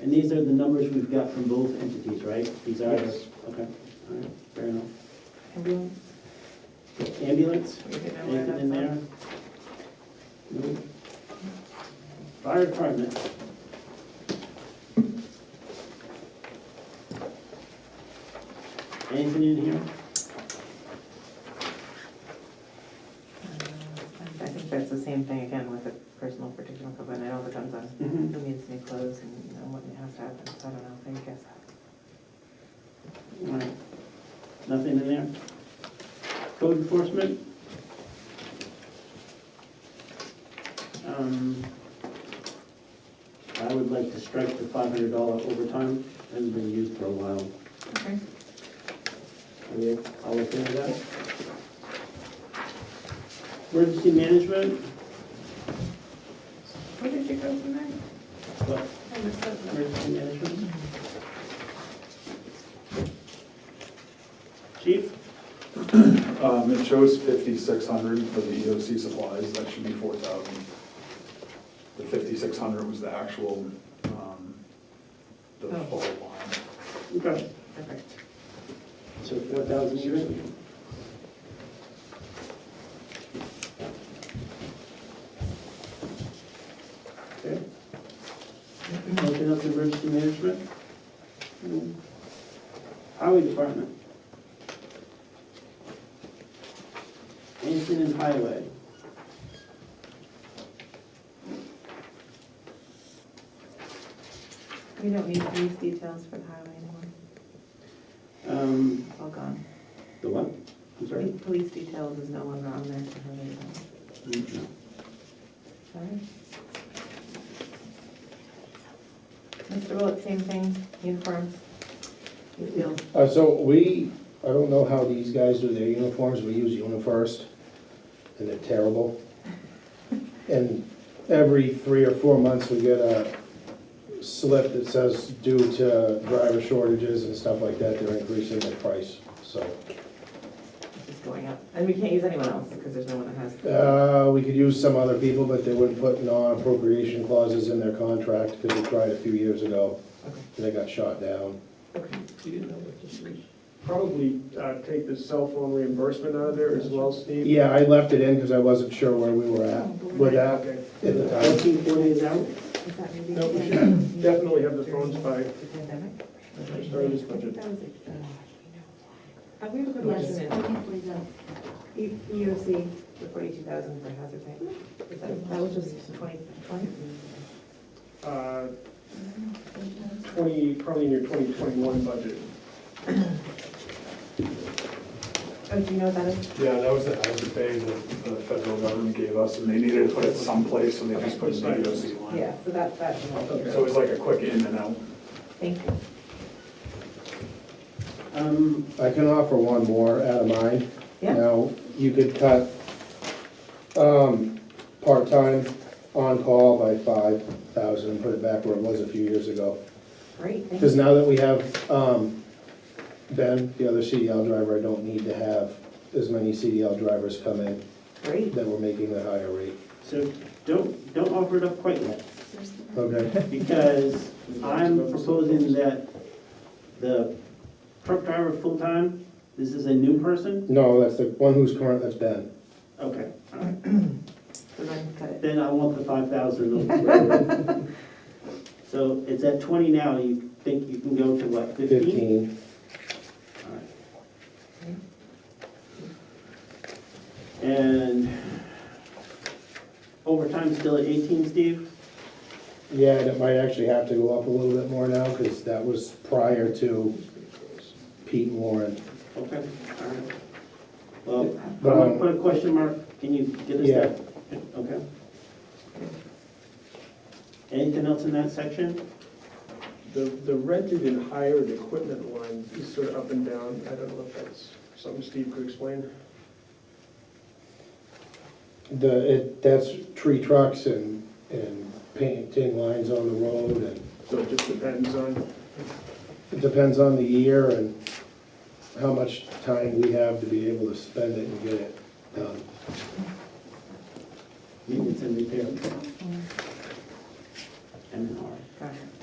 And these are the numbers we've got from both entities, right? These are, the- Yes. okay, all right, fair enough. Ambulance, Ambulance, we didn't know where anything in that's there? No. Fire department, anything in here? from. I think that's the same thing again with the personal particular component, it all depends on Mhm. who needs new clothes and you know, what has to happen, so I don't know, I guess. All right. Nothing in there? Code enforcement? Um, I would like to strike the five hundred dollar overtime, hasn't been used for a while. Okay. Are we all okay with that? Emergency management, Where did you go from there? what, I missed that. emergency management? Chief? Um, it shows fifty-six hundred for the EOC supplies, that should be four thousand. The fifty-six hundred was the actual, um, the Oh. full line. Okay. Okay. So four thousand even? Okay. Open up to emergency management? Hmm. Highway department? Anything in highway? We don't need these details for the highway anymore, Um, it's all gone. the what? I'm Poli- sorry? Police details is no longer on there for highway department. No. Sorry. Mr. Willet, same thing, uniforms, you feel, Uh, so we, I don't know how these guys do their uniforms, we use UniFirst, and they're terrible. And every three or four months, we get a slip that says due to driver shortages and stuff like that, they're increasing the price, so. it's just going up, and we can't use anyone else, because there's no one that has. Uh, we could use some other people, but they wouldn't put non-appropriation clauses in their contract, because we tried a few years ago, Okay, and they got shot down. okay. Probably uh, take the cell phone reimbursement out of there as well, Steve. Yeah, I left it in because I wasn't sure where we were Oh, at with that Okay. at the time. Fourteen, four days out? Is that maybe? No, we should definitely have the phones by The pandemic? start of this budget. uh, I Uh, have a good Yes, question, okay, please, uh, E- EOC, the forty-two thousand for hazard pay, Is that, that was just twenty, twenty? Uh, Twenty, probably in your twenty twenty-one budget. Oh, do you know what that is? Yeah, that was the hazard pay that the federal government gave us, and they needed to put it someplace, so they just put it in the EOC line. Yeah, so that, that, So it was like a quick in and out. thank you. Um, I can offer one more out of mine. Yeah. Now, you could cut, um, part-time on-call by five thousand and put it back where it was a few years ago. Great, thank Because you. now that we have, um, Ben, the other CDL driver, I don't need to have as many CDL drivers come in Great. that we're making the higher rate. so don't, don't offer it up quite yet. there's the- Okay? because I'm proposing that the truck driver full-time, this is a new person? No, that's the one who's current, that's Ben. Okay, all right. So then cut it. Then I want the five thousand. So it's at twenty now, you think you can go to what, fifteen? Fifteen. And overtime's still at eighteen, Steve? Yeah, and it might actually have to go up a little bit more now because that was prior to Pete and Warren. Okay, all right. Well, I'm But, gonna um, put a question mark, can you get us that? Okay. Anything else in that section? The, the rented and hired equipment line is sort of up and down. I don't know if that's something Steve could explain. The, it, that's tree trucks and, and painting lines on the road and So it just depends on, it depends on the year and how much time we have to be able to spend it and get it done. Maintenance and uh, repair. M and R. Got it.